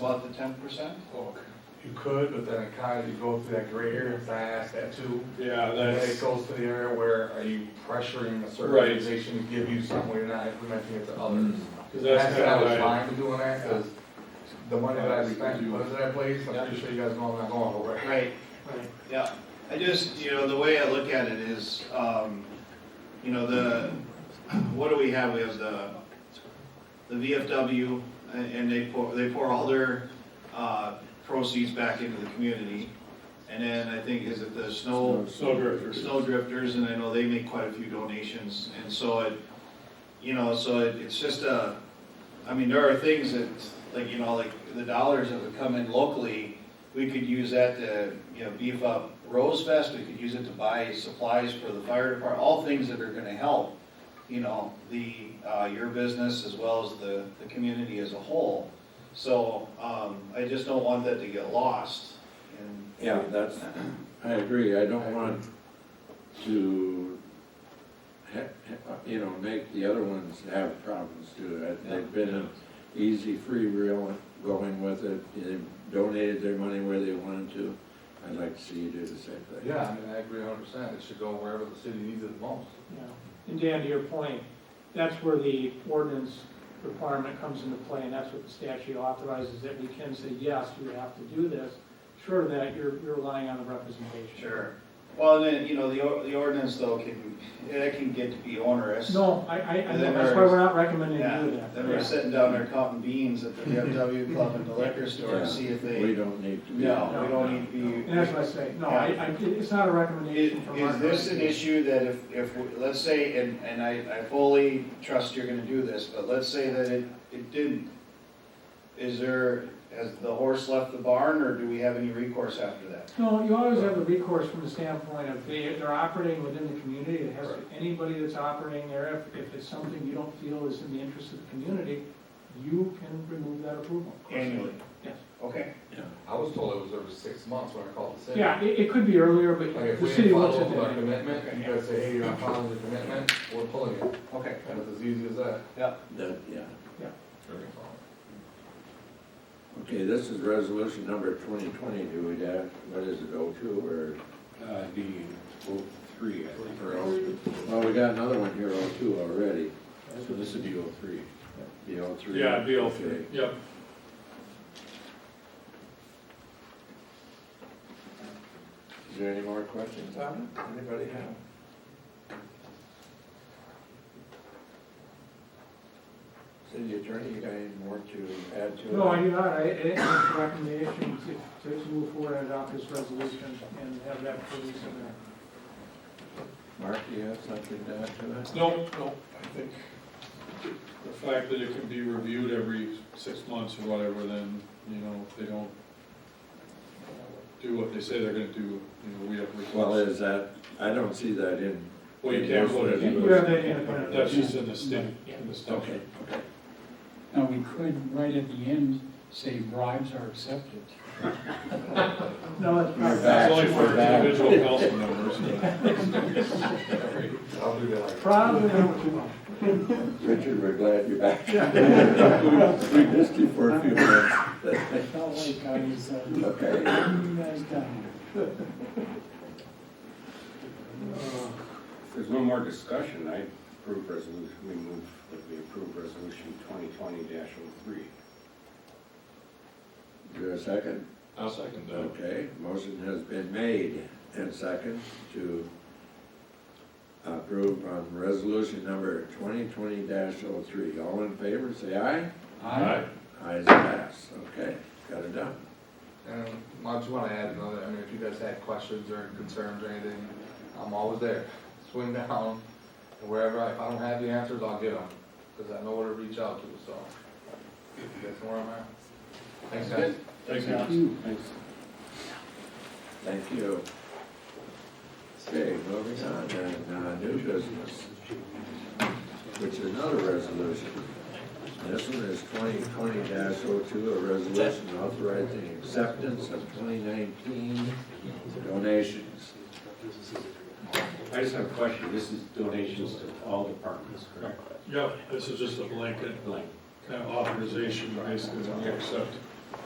About the ten percent or? You could, but then it kind of, you go through that gray area, if I asked that too. Yeah, And then it that's, goes to the area where are you pressuring a certain Right. organization to give you something, you're not implementing it to others. because that's what I kind was of fine with doing that, because the money that I spent, was in that place, I'm pretty sure you guys know I'm not going over. Right, yeah. I just, you know, the way I look at it is, um, you know, the, what do we have? We have the, the VFW and and they pour, they pour all their, uh, proceeds back into the community. And then I think is it the snow, snow drifters. snow drifters and I know they make quite a few donations. And so it, you know, so it, it's just a, I mean, there are things that, like, you know, like the dollars that would come in locally, we could use that to, you know, beef up Rose Fest, we could use it to buy supplies for the fire department, all things that are gonna help, you know, the, uh, your business as well as the, the community as a whole. So, um, I just don't want that to get lost and. Yeah, that's, I agree, I don't want to, ha- ha- you know, make the other ones have problems too. I- They've been an easy free reel going with it, they donated their money where they wanted to. I'd like to see you do the same thing. Yeah, I mean, I agree a hundred percent, it should go wherever the city needs it the most. Yeah, and Dan, to your point, that's where the ordinance requirement comes into play, and that's what the statute authorizes, that we can say, yes, you have to do this. Sure, that you're, you're relying on the representation. Sure. Well, then, you know, the, or- the ordinance though can, that can get to be onerous. No, I, I, I know, Then that's why there's- we're not recommending you Yeah, do that. then we're Yeah. sitting down there counting beans at the VFW club and the liquor store Yeah. to see if We they, don't need to be. no, we don't need to be. And that's what I say, no, I, I, it's not a Is, recommendation from our. is this an issue that if, if, we- let's say, and, and I, I fully trust you're gonna do this, but let's say that it, it didn't. Is there, has the horse left the barn or do we have any recourse after that? No, you always have the recourse from the standpoint of they, they're operating within the community, it has, to- anybody that's operating there, if, if it's something you don't feel is in the interest of the community, you can remove that approval. Annually? Yes. Okay, Yeah. I was told it was every six months when I called the city. Yeah, it, it could be earlier, Like, but if the we city didn't looks follow at up with our that. commitment, you guys say, hey, you're not following the commitment, we're pulling it, okay, and it's as easy as that. That, yeah. It's Okay, this is resolution number twenty twenty, do we have, what is it, oh two or? oh Uh, D, oh, three, I think, or else, Well, we got another one here, oh two already, so this would be oh, three. the oh three. Yeah, BL three, yep. Is there any more questions on it? Anybody have? City attorney, you got any more to add to it? No, I do not, I, it, it's a recommendation to, to move forward and adopt this resolution and have that released in there. Mark, do you have something to add to it? No, no, I think the fact that it can be reviewed every six months or whatever, then, you know, if they don't uh, do what they say they're gonna do, you know, we have Well, requests. is that, I don't see that in. Well, you can't vote it. You have that independent. That's just in the state, in the statute. okay. Now, we could, right at the end, say bribes are accepted. No, it's You're not. back. It's only for Back. individual council members, but. I'll do that. Probably not too much. Richard, we're glad you're back. We missed you for a few minutes. I felt like I was, uh, Okay. you guys down. If there's no more discussion, I approve resolution, we move, that we approve resolution twenty twenty 3 Do a second? I'll second Okay, motion has been made and second to approve on resolution number twenty twenty 3 All in favor, say aye. Aye. Ayes pass. Okay, got it done. And I just want to add another, I mean, if you guys had questions or concerns or anything, I'm always there. Swing down, and wherever, I- if I don't have the answers, I'll get them, because I know where to reach out to, so. You guys know where I'm at? Thanks, guys. Thanks, Thank Alex. you. Thanks. Thank you. Okay, moving on, and, uh, new business, which is another resolution. This one is twenty twenty 2 a resolution authorizing acceptance of twenty nineteen donations. I just have a question, this is donations to all departments, correct? Yep, this is just a blanket Blank. kind of authorization, basically, when we accept